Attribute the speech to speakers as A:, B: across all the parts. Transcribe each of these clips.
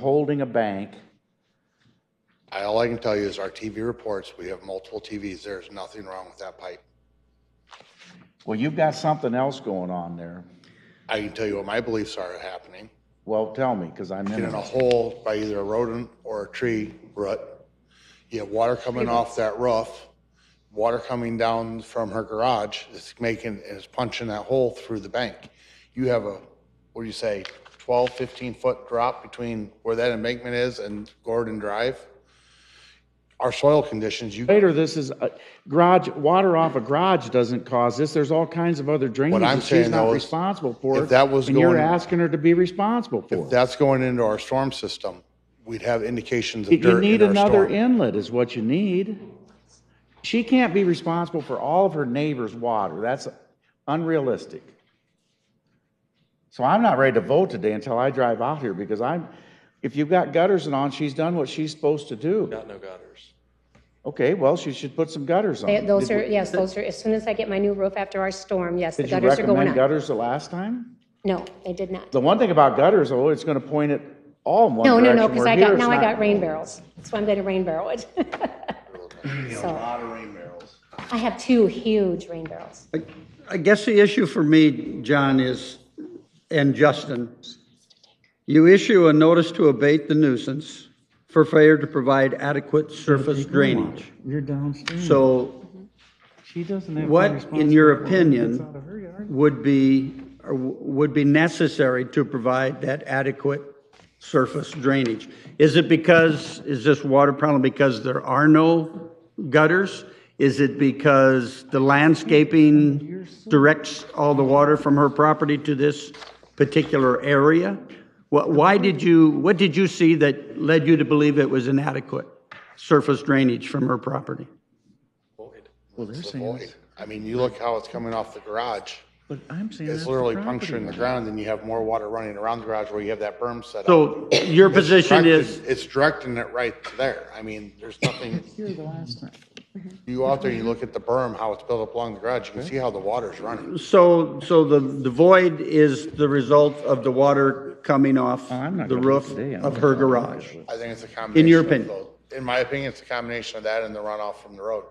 A: holding a bank.
B: I- All I can tell you is our TV reports, we have multiple TVs. There's nothing wrong with that pipe.
A: Well, you've got something else going on there.
B: I can tell you what my beliefs are happening.
A: Well, tell me, because I'm in
B: Get in a
A: it.
B: hole by either a rodent or a tree rut. You have water coming off that roof, water coming down from her garage, it's making, it's punching that hole through the bank. You have a, what do you say, 12, 15-foot drop between where that embankment is and Gordon Drive. Our soil conditions, you
A: Later, this is, uh, garage, water off a garage doesn't cause this. There's all kinds of other drainage
B: I'm
A: that she's
B: saying,
A: not
B: though, is
A: responsible for.
B: if that was
A: And you're
B: going-
A: asking her to be responsible for
B: If
A: it.
B: that's going into our storm system, we'd have indications of
A: You
B: dirt
A: need
B: in our
A: another
B: storm.
A: inlet is what you need. She can't be responsible for all of her neighbor's water. That's unrealistic. So I'm not ready to vote today until I drive out here because I'm, if you've got gutters and on, she's done what she's supposed to do.
C: Got no gutters.
A: Okay, well, she should put some gutters on.
D: They- Those
A: Did-
D: are, yes, those are, as soon as I get my new roof after our storm, yes, the
A: Did you
D: gutters are going
A: recommend
D: up.
A: gutters the last time?
D: No, they did not.
A: The one thing about gutters, oh, it's gonna point at all in one
D: No,
A: direction.
D: no, no, because
A: where
D: I
A: here
D: got,
A: it's
D: now I
A: not.
D: got rain barrels. That's why I'm going to rain barrel it. So, I have two huge rain barrels.
E: I guess the issue for me, John, is, and Justin, you issue a notice to abate the nuisance for failure to provide adequate surface drainage.
F: You're downstream.
E: So
F: She doesn't have. to be
E: what, in
F: responsible
E: your
F: for what gets out of her
E: opinion,
F: yard.
E: would be, or w- would be necessary to provide that adequate surface drainage? Is it because, is this water problem because there are no gutters? Is it because the landscaping directs all the water from her property to this particular area? Wh- Why did you, what did you see that led you to believe it was inadequate surface drainage from her property?
A: Well, they're
B: It's a
A: saying,
B: void. I mean, you look how it's coming off the garage.
A: but I'm saying that's
B: It's
A: the
B: literally
A: property
B: puncturing the
A: line.
B: ground and you have more water running around the garage where you have that berm set up.
E: So your position is?
B: Directed- It's directing it right to there. I mean, there's nothing,
F: Here the last time.
B: you go out there, you look at the berm, how it's built up along the garage, you can see how the water's running.
E: So, so the, the void is the result of the water coming off
A: Oh, I'm not
E: the
A: gonna
E: roof
A: today, I'm
E: of
A: not
E: her
A: gonna
E: garage?
B: I think it's a combination.
E: your
B: of
E: opinion.
B: both. In my opinion, it's a combination of that and the runoff from the road.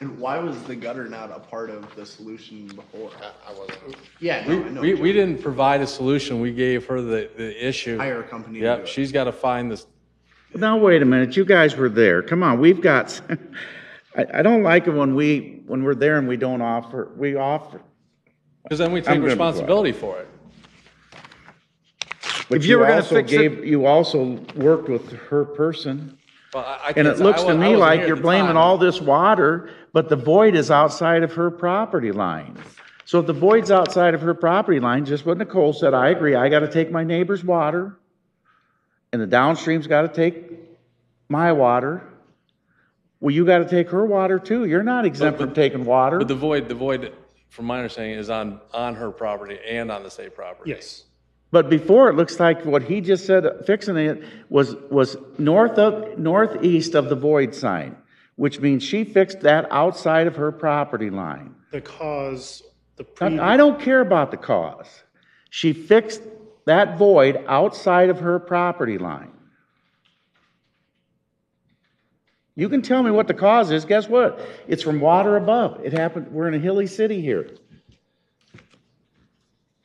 G: And why was the gutter not a part of the solution before?
B: I I wasn't.
G: Yeah,
C: We,
G: no, I know.
C: we, we didn't provide a solution. We gave her the, the issue.
G: Hire a company to do
C: Yep,
G: it.
C: she's got to find this,
A: Now, wait a minute, you guys were there, come on, we've got, s- I, I don't like it when we, when we're there and we don't offer, we offer.
C: because then we
A: gonna
C: take
A: be quiet.
C: responsibility for it.
A: But
E: If you were gonna
A: also
E: fix it-
A: gave- You also worked with her person,
C: Well, I- I
A: and
C: can't
A: it
C: say- I
A: looks
C: wa-
A: to
C: I
A: me
C: wasn't
A: like
C: here at
A: you're
C: the
A: blaming
C: time.
A: all this water, but the void is outside of her property line. So if the void's outside of her property line, just what Nicole said, I agree, I gotta take my neighbor's water, and the downstream's gotta take my water. Well, you gotta take her water too, you're not exempt from taking water.
C: But the void, the void, from my understanding, is on, on her property and on the state property.
H: Yes.
A: But before, it looks like what he just said, fixing it, was, was north of, northeast of the void sign, which means she fixed that outside of her property line.
H: The cause, the
A: I-
H: previous.
A: I don't care about the cause. She fixed that void outside of her property line. You can tell me what the cause is, guess what? It's from water above. It happened, we're in a hilly city here.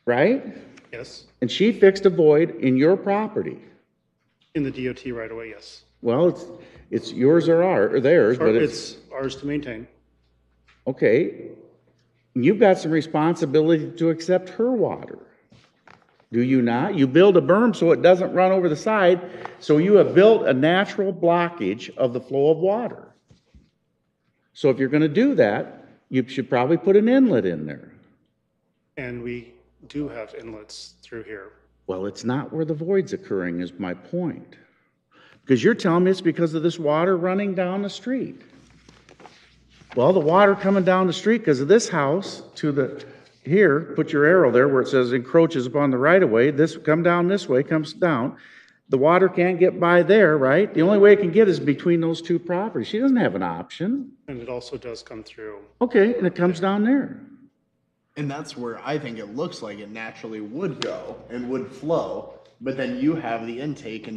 A: Right?
H: Yes,
A: And she fixed a void in your property.
H: in the DOT right away, yes.
A: Well, it's, it's yours or our, or theirs,
H: Or
A: but it's,
H: It's ours to maintain.
A: okay. You've got some responsibility to accept her water. Do you not? You build a berm so it doesn't run over the side, so you have built a natural blockage of the flow of water. So if you're gonna do that, you should probably put an inlet in there.
H: And we do have inlets through here.
A: Well, it's not where the void's occurring is my point. Because you're telling me it's because of this water running down the street. Well, the water coming down the street because of this house to the, here, put your arrow there where it says encroaches upon the right of way, this, come down this way, comes down. The water can't get by there, right? The only way it can get is between those two properties. She doesn't have an option.
H: And it also does come through.
A: Okay, and it comes down there.
G: And that's where I think it looks like it naturally would go and would flow. But then you have the intake and